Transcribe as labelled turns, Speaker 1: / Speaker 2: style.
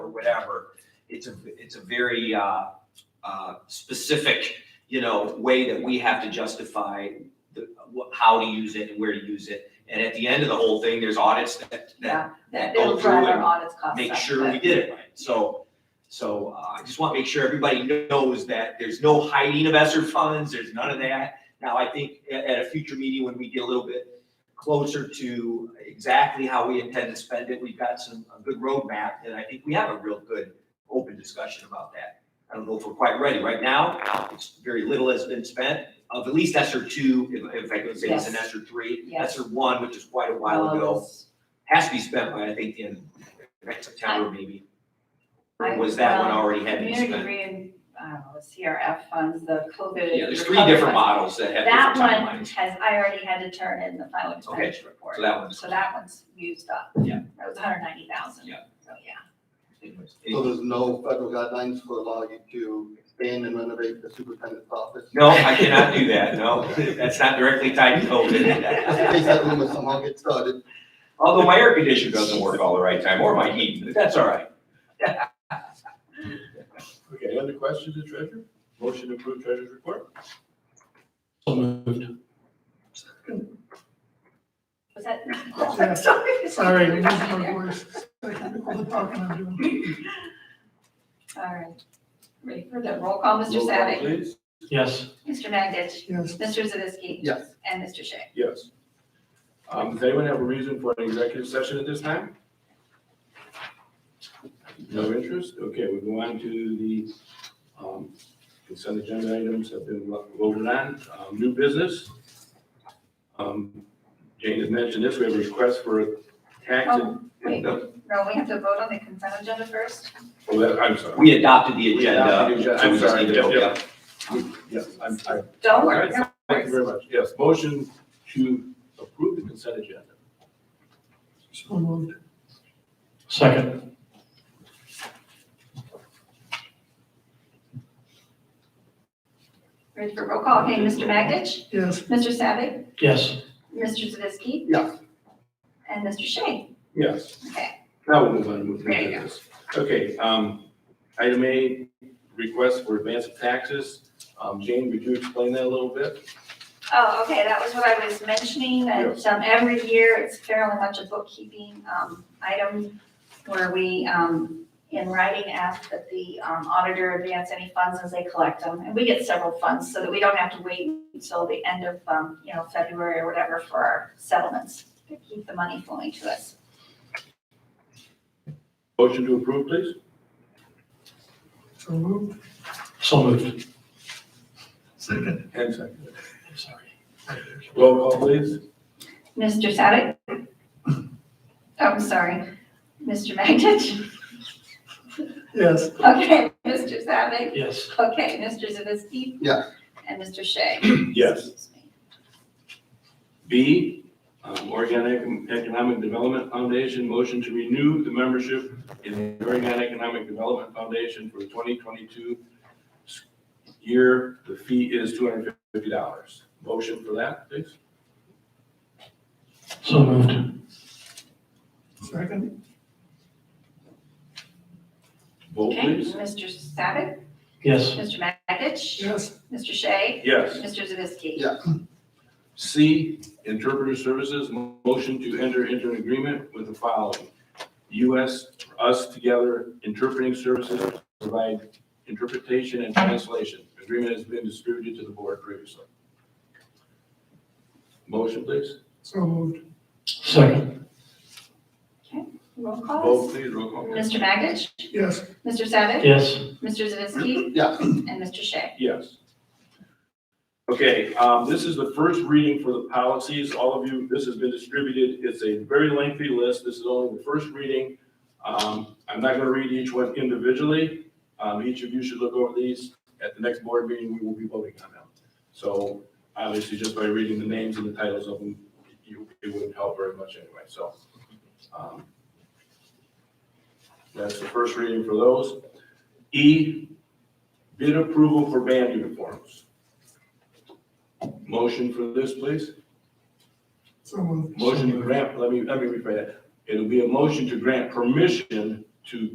Speaker 1: whatever. It's a, it's a very, uh, uh, specific, you know, way that we have to justify the, wh- how to use it and where to use it. And at the end of the whole thing, there's audits that, that
Speaker 2: Yeah, that
Speaker 1: go
Speaker 2: it'll
Speaker 1: through
Speaker 2: drive our
Speaker 1: and
Speaker 2: audits costs up.
Speaker 1: Oh, make sure we
Speaker 2: but-
Speaker 1: did it right. So, so uh, I just want to make sure everybody knows that there's no hiding of ESSER funds, there's none of that. Now, I think a- at, a future meeting, when we get a little bit closer to exactly how we intend to spend it, we've got some, a good roadmap, and I think we have a real good open discussion about that. I don't know if we're quite ready. Right now, it's very little has been spent, of at least ESSER two, if, if I could say it's an
Speaker 2: Yes.
Speaker 1: ESSER three.
Speaker 2: Yes.
Speaker 1: ESSER one, which is quite a while
Speaker 2: Well,
Speaker 1: ago
Speaker 2: it's-
Speaker 1: has to be spent by, I think, in next September maybe. Or
Speaker 2: I-
Speaker 1: was that one
Speaker 2: well,
Speaker 1: already had been
Speaker 2: Community
Speaker 1: spent?
Speaker 2: rein, I don't know, the CRF funds, the COVID.
Speaker 1: Yeah, there's three
Speaker 2: recovery
Speaker 1: different
Speaker 2: funds.
Speaker 1: models that have
Speaker 2: That
Speaker 1: different
Speaker 2: one
Speaker 1: timelines.
Speaker 2: has, I already had to turn in the final expenditure report.
Speaker 1: So that one's,
Speaker 2: So that one's used up.
Speaker 1: Yeah.
Speaker 2: That was hundred ninety thousand.
Speaker 1: Yeah.
Speaker 2: So, yeah.
Speaker 1: anyways,
Speaker 3: So
Speaker 4: Oh,
Speaker 1: any-
Speaker 3: there's no federal guidelines for allow you to expand and renovate the superintendent's office?
Speaker 1: no, I cannot do that, no, that's not directly tied to
Speaker 3: Just in case
Speaker 1: COVID.
Speaker 3: that rumor somehow gets started.
Speaker 1: Although my air conditioner doesn't work all the right time, or my heating, but that's all right.
Speaker 4: Okay, any other questions, the treasurer? Motion to approve treasurer's report?
Speaker 5: So moved.
Speaker 2: Was that? I'm sorry.
Speaker 6: Sorry, I'm losing my voice. All the talking I'm doing.
Speaker 2: All right. Ready for the roll call, Mr.
Speaker 4: Roll call,
Speaker 2: Savick,
Speaker 4: Please.
Speaker 5: Yes,
Speaker 2: Mr. Magich,
Speaker 6: Yes,
Speaker 2: Mr. Zavisky,
Speaker 3: Yes,
Speaker 2: and Mr. Shea.
Speaker 4: Yes. Um, does anyone have a reason for an executive session at this time? No interest? Okay, we go on to the, um, consent agenda items have been voted on, um, new business. Um, Jane has mentioned this, we have a request for a tax and.
Speaker 2: Oh, wait. No, we have to vote on the consent agenda first.
Speaker 4: Oh, that- I'm sorry.
Speaker 1: We adopted the
Speaker 4: We adopted
Speaker 1: agenda.
Speaker 4: the agenda.
Speaker 1: so we
Speaker 4: I'm
Speaker 1: just
Speaker 4: sorry.
Speaker 1: need to vote,
Speaker 4: Yep, Yes, I'm, I
Speaker 2: Don't worry.
Speaker 4: All
Speaker 2: no
Speaker 4: Thank
Speaker 2: worries.
Speaker 4: you very much. Yes, motion to approve the consent agenda.
Speaker 6: so moved.
Speaker 5: second.
Speaker 2: Ready for roll call? Okay, Mr. Magich,
Speaker 6: Yes,
Speaker 2: Mr. Savick,
Speaker 5: Yes,
Speaker 2: Mr. Zavisky,
Speaker 3: yes.
Speaker 2: and Mr. Shea.
Speaker 4: Yes.
Speaker 2: Okay.
Speaker 4: Now we'll move on to move
Speaker 2: There you go.
Speaker 4: business. Okay, um, item A, request for advance of taxes. Um, Jane, would you explain that a little bit?
Speaker 2: Oh, okay, that was what I was mentioning, that um, every year, it's fairly much a bookkeeping um, item where we, um, in writing, ask that the um, auditor advance any funds as they collect them. And we get several funds so that we don't have to wait until the end of, um, you know, February or whatever for our settlements to keep the money flowing to us.
Speaker 4: Motion to approve, please?
Speaker 6: so moved.
Speaker 5: so moved.
Speaker 6: Second.
Speaker 4: And second.
Speaker 5: Sorry.
Speaker 4: Roll call, please.
Speaker 2: Mr. Savick? Oh, I'm sorry. Mr. Magich?
Speaker 6: Yes,
Speaker 2: Okay, Mr. Savick?
Speaker 5: Yes,
Speaker 2: Okay, Mr. Zavisky?
Speaker 3: Yes.
Speaker 2: And Mr. Shea? Excuse me.
Speaker 4: B, um, Oregon Econ- Economic Development Foundation, motion to renew the membership in the Oregon Economic Development Foundation for the 2022 s- year. The fee is $250. Motion for that, please?
Speaker 5: so moved.
Speaker 6: second.
Speaker 4: Vote,
Speaker 2: Okay,
Speaker 4: please.
Speaker 2: Mr. Savick,
Speaker 5: Yes,
Speaker 2: Mr. Magich,
Speaker 6: Yes,
Speaker 2: Mr. Shea,
Speaker 4: Yes.
Speaker 2: Mr. Zavisky.
Speaker 3: Yeah.
Speaker 4: C, Interpreter Services, mo- motion to enter into an agreement with the following. U.S. Us Together Interpreting Services to provide interpretation and translation. Agreement has been distributed to the board previously. Motion, please.
Speaker 6: so moved.
Speaker 5: second.
Speaker 2: Roll
Speaker 4: Vote,
Speaker 2: calls.
Speaker 4: please, roll call.
Speaker 2: Mr. Magich,
Speaker 6: Yes,
Speaker 2: Mr. Savick,
Speaker 5: Yes,
Speaker 2: Mr. Zavisky,
Speaker 3: Yes,
Speaker 2: and Mr. Shea.
Speaker 4: Yes. Okay, um, this is the first reading for the policies. All of you, this has been distributed. It's a very lengthy list. This is only the first reading. Um, I'm not gonna read each one individually. Um, each of you should look over these. At the next board meeting, we will be voting on them. So obviously, just by reading the names and the titles of them, you, it wouldn't help very much anyway, so. um, That's the first reading for those. E, Bid approval for band uniforms. Motion for this, please?
Speaker 6: so moved.
Speaker 4: Motion to grant, let me, let me rephrase that. It'll be a motion to grant permission to